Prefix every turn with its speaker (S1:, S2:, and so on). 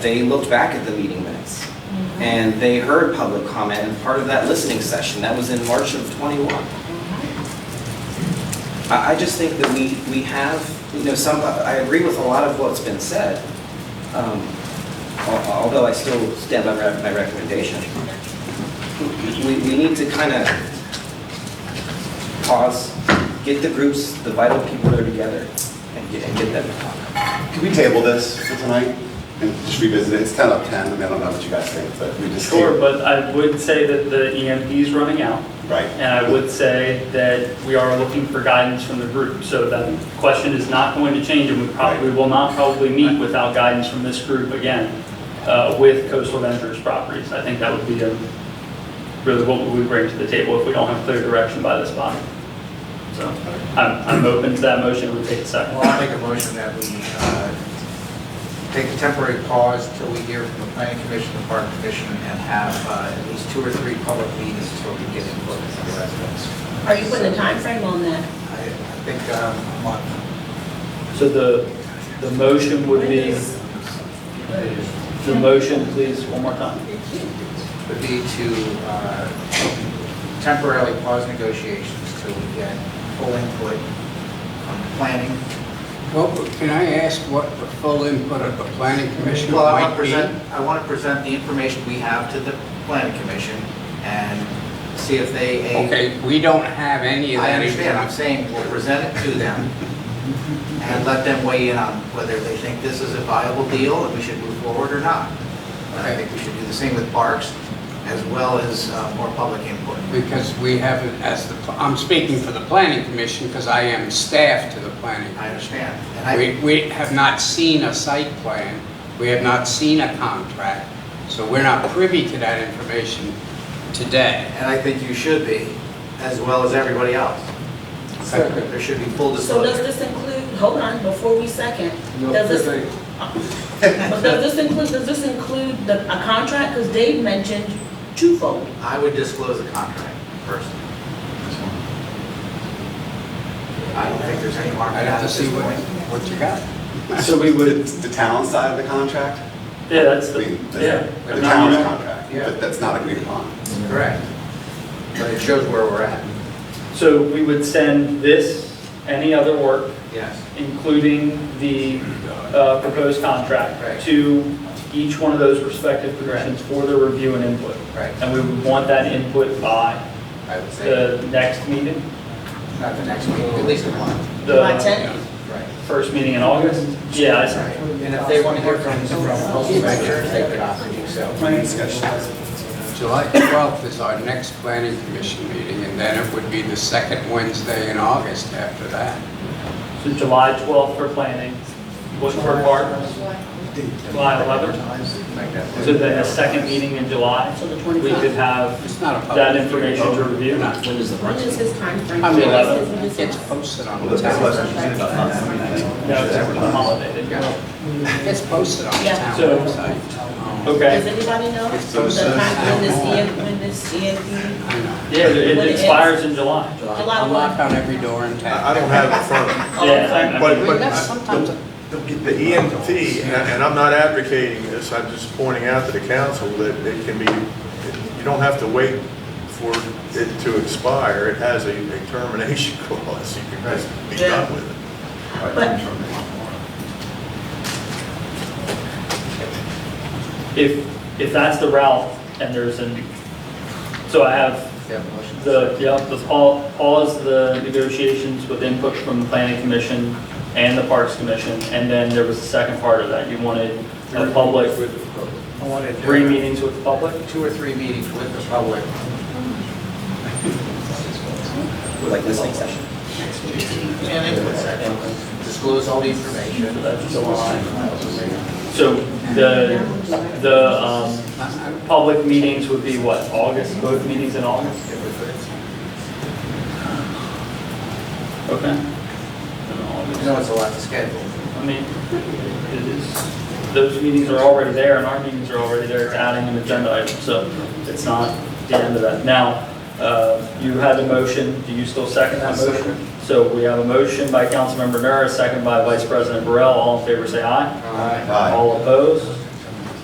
S1: they looked back at the meeting minutes and they heard public comment and part of that listening session, that was in March of '21. I, I just think that we, we have, you know, some, I agree with a lot of what's been said, um, al- although I still stand by my my recommendation. We, we need to kind of pause, get the groups, the vital people that are together and get, and get them to talk.
S2: Can we table this for tonight and just revisit it? It's 10 of 10, I mean, I don't know what you guys think, but we just.
S3: Sure, but I would say that the EMP is running out,
S2: Right.
S3: and I would say that we are looking for guidance from the group. So that question is not going to change, and we probably will not probably meet without guidance from this group again uh, with coastal ventures properties. I think that would be um, really what we would bring to the table if we don't have clear direction by this body. So I'm I'm open to that motion, it would take a second.
S4: Well, I'll make a motion that we uh, take a temporary pause till we hear from the planning commission, the park commission, and have uh, at least two or three public meetings till we get input from the residents.
S5: Are you putting a time frame on
S4: I
S5: that?
S4: I think um, a month.
S6: So the, the motion would be, the motion, please, one more time.
S4: would be to uh, temporarily pause negotiations till we get full input on the planning.
S7: Well, can I ask what the full input of the planning commission
S4: Well, I want
S7: might
S4: to
S7: be?
S4: present, I want to present the information we have to the planning commission and see if they, A,
S7: Okay, we don't have any of
S4: I
S7: that.
S4: understand, I'm saying we'll present it to them and let them weigh in on whether they think this is a viable deal and we should move forward or not. And I think we should do the same with parks as well as uh, more public input.
S7: Because we haven't, as the, I'm speaking for the planning commission because I am staff to the planning.
S4: I understand. And I,
S7: We, we have not seen a site plan, we have not seen a contract, so we're not privy to that information today.
S4: and I think you should be, as well as everybody else. There should be full
S5: So does
S4: disclosure.
S5: this include, hold on, before we second, does this, but does this include, does this include the, a contract? Because Dave mentioned twofold.
S4: I would disclose the contract first. I don't think there's any harm in
S7: I'd
S4: that
S7: have to
S4: at
S7: see
S4: this
S7: what,
S4: point.
S7: what you got.
S2: So we would. The town side of the contract?
S3: Yeah, that's
S2: I
S3: the,
S2: mean, the-
S3: yeah.
S2: The town's
S3: No, no,
S2: contract,
S4: Yeah.
S2: but that's not agreed upon.
S4: Correct. But it shows where we're at.
S3: So we would send this, any other work,
S4: Yes.
S3: including the uh, proposed
S4: Right.
S3: contract, to each one of those respective commissions for their review and input.
S4: Right.
S3: And we would want that input by
S4: I would say,
S3: the next meeting,
S4: not the next week, at least a month.
S5: July
S3: the
S5: 10th?
S4: Right.
S3: first meeting in August. Yeah, I see.
S4: And if they want to hear from, from Postal Ventures, they could offer to do so.
S2: Planning discussion.
S7: July 12th is our next planning commission meeting, and then it would be the second Wednesday in August after that.
S3: so July 12th for planning, what for partners, July 11th. So then the second meeting in July,
S5: So the
S3: we could
S5: 25th?
S3: have
S7: It's not a public.
S3: that information to review.
S7: Not-
S1: When does the
S5: When is his timeframe?
S7: I
S5: When
S7: mean,
S5: is
S7: it
S5: his- when
S7: gets
S5: is his-
S7: posted on
S2: Well,
S7: the
S2: that's
S7: town.
S2: less than
S3: No, it's a holiday. didn't it?
S7: It gets posted on the
S5: Yeah.
S7: town
S3: So-
S7: website.
S3: Okay.
S5: Does anybody know
S7: It's
S5: the
S7: so
S5: time, when this,
S7: sad.
S5: EM when this EMP?
S7: I know.
S3: Yeah, it
S5: When
S3: it
S5: it
S3: expires in July.
S5: July
S7: I
S5: one?
S7: knock on every door in
S8: I I
S7: town.
S8: don't have it in front of
S3: Yeah, I- I
S8: But-
S3: mean-
S7: I mean, that's sometimes a-
S8: me. The EMT, and and I'm not advocating this, I'm just pointing out to the council that it can be, you don't have to wait for it to expire. It has a a termination clause, you can just be done with it.
S5: But-
S3: If, if that's the route, and there's an, so I have
S4: They have a motion.
S3: the, yeah, the pa- pause the negotiations with input from the planning commission and the parks commission, and then there was a second part of that, you wanted a public,
S4: I wanted
S3: three meetings with the public?
S4: Two or three meetings with the public.
S1: Like listening session.
S4: And input section. Disclose all the information.
S3: So the, the, um, public meetings would be what, August, both meetings in August? Okay. In August.
S4: You know, it's a lot to schedule.
S3: I mean, it is, those meetings are already there, and our meetings are already there, it's adding an agenda item, so it's not the end of that. Now, uh, you had a motion, do you still second that motion? So we have a motion by Councilmember Nura, a second by Vice President Burrell, all in favor say aye.
S4: All right.
S2: Aye.
S3: All opposed?